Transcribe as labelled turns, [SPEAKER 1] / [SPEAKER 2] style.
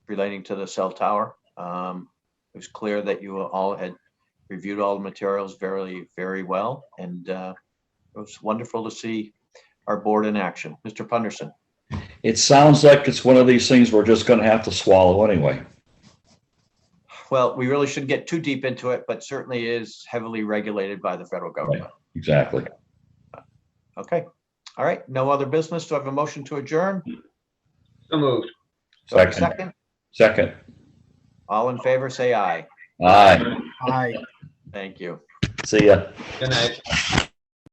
[SPEAKER 1] relating to the cell tower. Um, It was clear that you all had reviewed all the materials very, very well, and uh, it was wonderful to see our board in action. Mr. Punderson,
[SPEAKER 2] It sounds like it's one of these things we're just gonna have to swallow anyway.
[SPEAKER 1] well, we really shouldn't get too deep into it, but certainly is heavily regulated by the federal government.
[SPEAKER 2] Exactly.
[SPEAKER 1] Okay, all right, no other business. Do I have a motion to adjourn?
[SPEAKER 3] So moved.
[SPEAKER 1] Do I have a
[SPEAKER 2] Second.
[SPEAKER 1] Second,
[SPEAKER 2] Second.
[SPEAKER 1] all in favor, say aye.
[SPEAKER 2] Aye.
[SPEAKER 4] Aye.
[SPEAKER 1] Thank you.
[SPEAKER 2] See ya.
[SPEAKER 3] Good night.